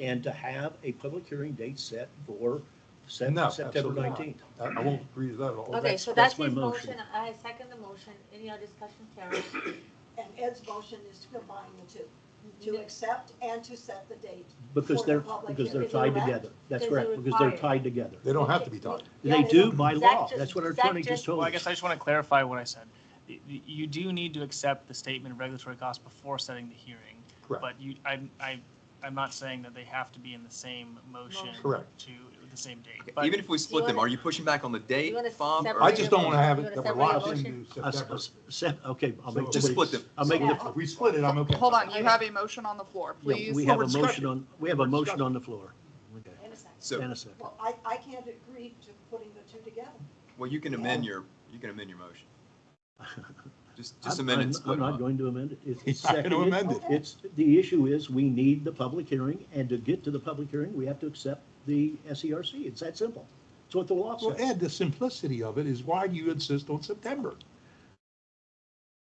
and to have a public hearing date set for Sep- No, September absolutely not. nineteenth. I, I won't agree to that at all. Okay, that's- so that's that's my his motion. motion. I second the motion. Any other discussion, Karen? And Ed's motion is to combine the two, to accept and to set the date. Because For the they're, public because they're hearing, tied correct? together. That's Because correct, they're because they're required. tied together. They don't have to be tied. Yeah, They they do don't- by Zach law. just- That's what our Zach attorney just just- told Well, us. I guess I just want to clarify what I said. Y- y- You do need to accept the statement of regulatory costs before setting the hearing. Correct. But you, I'm, I, I'm not saying that they have to be in the same motion. Motion. Correct. To the same date. Okay, But Even if we split them, are you pushing back on the date, wanna Bob? or- separate I just don't want to have You it that wanna we're separate locked the into A s- a September. s- sep- Okay, I'll make. the Just split them. I'll make Yeah. the, If we split it, I'm okay. Hold on, you have a motion on the floor, yeah, please. we have Well, a motion we're discussing. on, we have a motion on the floor. Okay, So, And a second. Well, I, I can't agree to putting the two together. well, you can amend your, you can amend your motion. Just, just I'm- amend it, I'm- and split I'm them not up. going to amend it. It's- It's He's not gonna seconded. amend it. It's, the issue is, we need the public hearing, and to get to the public hearing, we have to accept the SERC. It's that simple. It's what the law Well, says. Ed, the simplicity of it is why do you insist on September?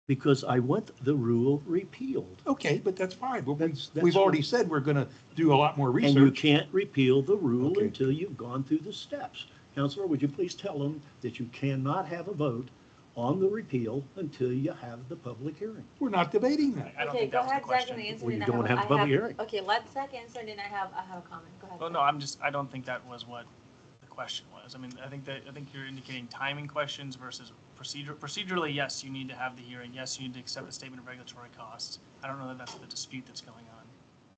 Because I want the rule repealed. Okay, but that's fine. But we, That's- that's we've already what- said we're gonna do a lot more And you research. can't repeal the rule Okay. until you've gone through the steps. Counselor, would you please tell them that you cannot have a vote on the repeal until you have the public hearing? We're not debating that. I don't Okay, think go that ahead, was the Zach, and question. answer. Well, and you then I don't have a I public hearing. Okay, let Zach answer, and then I have, I have a comment. Go ahead. Oh, Well, no, I'm just, I don't think that was what the question was. I mean, I think that, I think you're indicating timing questions versus procedure. Procedurally, yes, you need to have the hearing. Yes, you need to accept the statement of regulatory costs. I don't know that that's the dispute that's going on.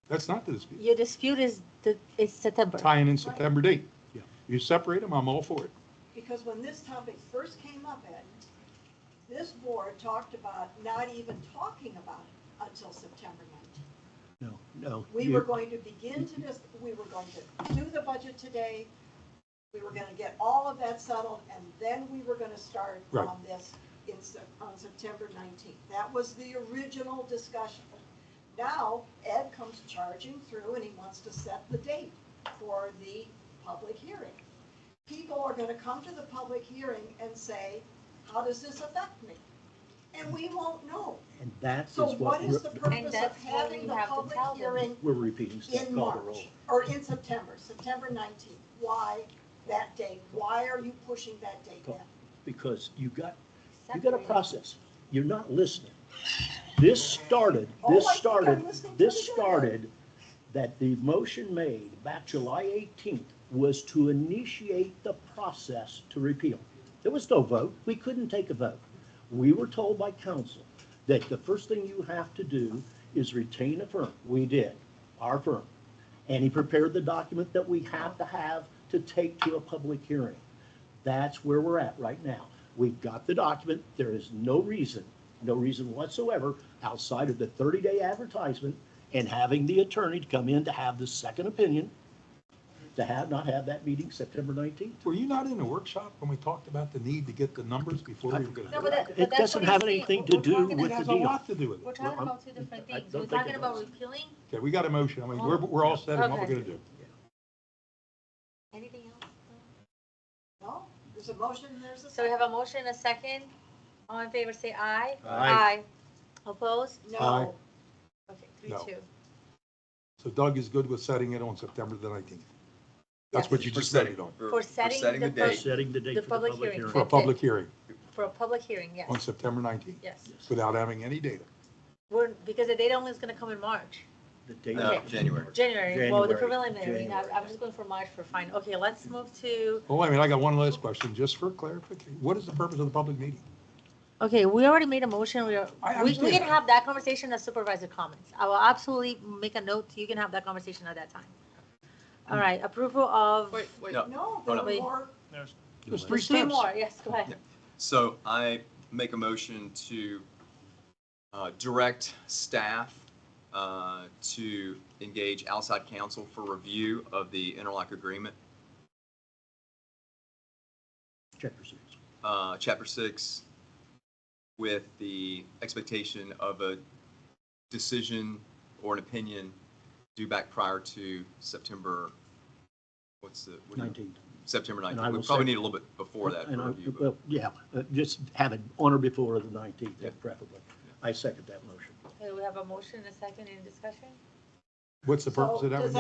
That's not the dispute. Your dispute is, the it's September. Tying in September date. Yeah. You separate them, I'm all for it. Because when this topic first came up, Ed, this board talked about not even talking about it until September nineteenth. No, no. We you- were going to begin to just, we were going to do the budget today. We were gonna get all of that settled, and then we were gonna start Right. on this in, Sep- on September nineteenth. That was the original discussion. Now, Ed comes charging through and he wants to set the date for the public hearing. People are gonna come to the public hearing and say, how does this affect me? And we won't know. And that is So what what is the we're- purpose of that's what we having the have to public tell them. hearing we're repeating. Step, in call the March, roll. or in September, September 19th. Why that date? Why are you pushing that date Go. now? Because you got You got a Separate. process. You're not listening. This started, Oh, this I think I'm started, listening this pretty good. started that the motion made back July 18th was to initiate the process to repeal. There was no vote. We couldn't take a vote. We were told by council that the first thing you have to do is retain a firm. We did, our firm. And he prepared the document that we have to have to take to a public hearing. That's where we're at right now. We've got the document. There is no reason, no reason whatsoever, outside of the 30-day advertisement and having the attorney to come in to have the second opinion, to have, not have that meeting September 19th. Were you not in the workshop when we talked about the need to get the numbers before we were gonna? No, do but that- It but that's doesn't what have he's saying. anything to We're do with It talking the about- has a deal. lot to do with We're it. talking I'm- about two different I things. don't We're think talking it about does. repealing, Okay, we got a motion. I mean, we're, we're all set on what we're Okay. gonna do. anything else? No, there's a motion, there's a So we second. have a motion, a second. All in favor, say aye. Aye. Opposed? No, Okay, three, No. two. So Doug is good with setting it on September the nineteenth. That's Yes. what you For just voted setting- on, For setting the We're first- date. Setting the date The for the public public hearing. hearing. for a That's it. public hearing For a public hearing, yes, on September nineteenth, yes. without having any data. We're, because the date only is gonna come in March, The date. No, Okay. Uh, January. January, well, the January, preliminary, I- I'm just going for March for fine. Okay, let's move to, Well, Oh, I mean, I got one last question, just for clarification. What is the purpose of the public meeting? okay, we already made a motion, we are, I we, we understand. can have that conversation as supervisor comments. I will absolutely make a note, you can have that conversation at that time. All right, approval of, Wait, wait, No. no, Hold there on. are more. There's, There's three there's three steps. more, yes, go ahead. So I make a motion to uh, direct staff uh, to engage outside counsel for review of the interlock agreement, Chapter six. uh, chapter six, with the expectation of a decision or an opinion due back prior to September, what's the? what do you- 19th. September And I 19th. We will probably say- need a little bit before that And for I- review. but- Well, yeah, uh, just have it on or before the 19th, Yeah. preferably. I second that motion. Okay, we have a motion, a second, any discussion? What's the purpose So of that? does one?